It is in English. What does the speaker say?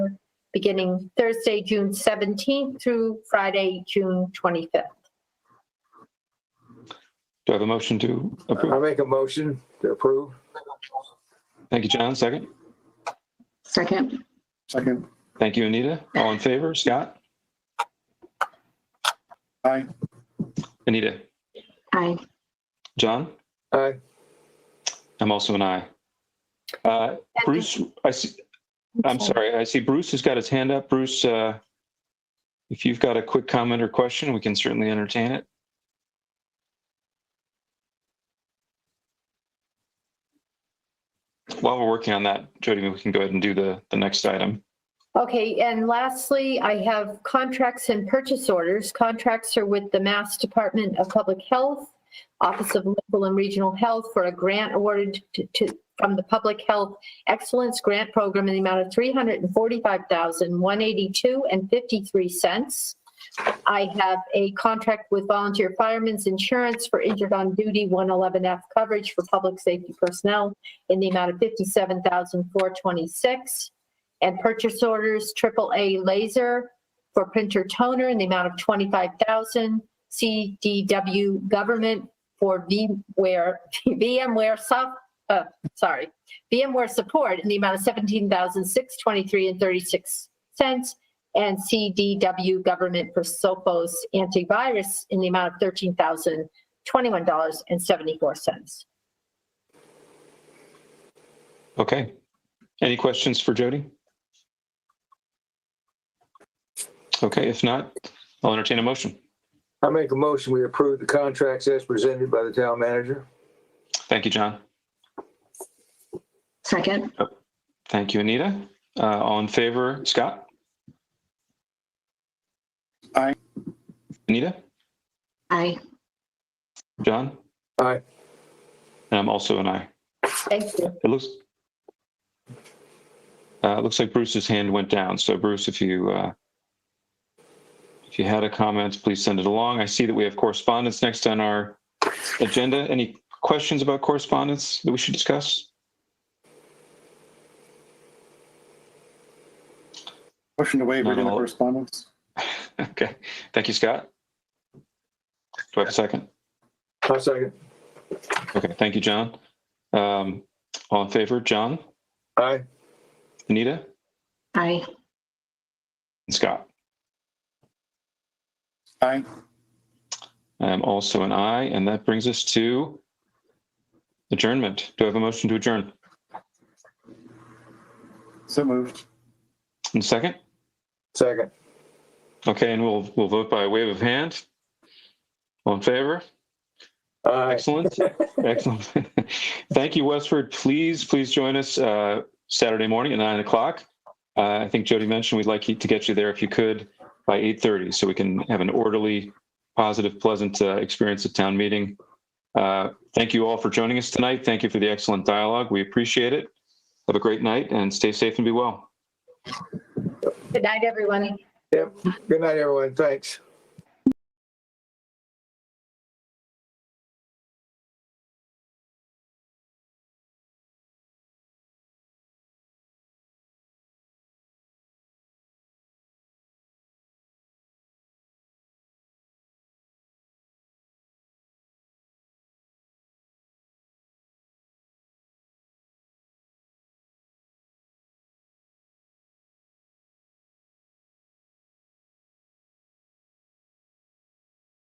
beginning Thursday, June 17th through Friday, June 25th. Do I have a motion to I'll approve? make a motion to approve. Thank you, John. Second. Second, Second. Thank you, Anita. All in favor? Scott? Aye. Anita? aye. John? Aye. I'm also an aye. Uh, Bruce, I see, I'm sorry, I see Bruce has got his hand up. Bruce, uh, if you've got a quick comment or question, we can certainly entertain it. While we're working on that, Jody, we can go ahead and do the, the next item. Okay, and lastly, I have contracts and purchase orders. Contracts are with the Mass Department of Public Health, Office of Local and Regional Health for a grant awarded to- to, from the Public Health Excellence Grant Program in the amount of three hundred and forty-five thousand, one eighty-two and fifty-three cents. I have a contract with Volunteer Firemen's Insurance for Injured on Duty 111F coverage for public safety personnel in the amount of fifty-seven thousand, four twenty-six and purchase orders AAA laser for printer toner in the amount of 25,000, CDW government for VMware, VMware soft, uh, sorry, VMware support in the amount of 17,623 and 36 cents, and CDW government for Sophos antivirus in the amount of 13,021 dollars and 74 cents. Okay. Any questions for Jody? Okay, if not, I'll entertain a motion. I'll make a motion, we approve the contracts as presented by the town manager. Thank you, John. Second, Thank you, Anita. Uh, all in favor, Scott? Aye. Anita? aye. John? Aye. And I'm also an aye. Thank you. It looks, uh, it looks like Bruce's hand went down. So Bruce, if you, uh, if you had a comment, please send it along. I see that we have correspondence next on our agenda. Any questions about correspondence that we should discuss? Motion to waive reading the No. correspondence. Okay. Thank you, Scott. Do I have a second? I'll second. Okay, thank you, John. Um, all in favor, John, Aye. Anita, Aye. and Scott? Aye. I'm Um, also an aye, and that brings us to adjournment. Do I have a motion to adjourn? So moved. And second? Second. Okay, and we'll, we'll vote by wave of hand. All in favor? Aye. Excellent. Excellent. Thank you, Westford. Please, please join us uh, Saturday morning at nine o'clock. Uh, I think Jody mentioned we'd like you to get you there if you could by eight thirty, so we can have an orderly, positive, pleasant uh, experience at town meeting. Uh, thank you all for joining us tonight. Thank you for the excellent dialogue. We appreciate it. Have a great night and stay safe and be well. Good night, everyone. Good night, everyone. Thanks.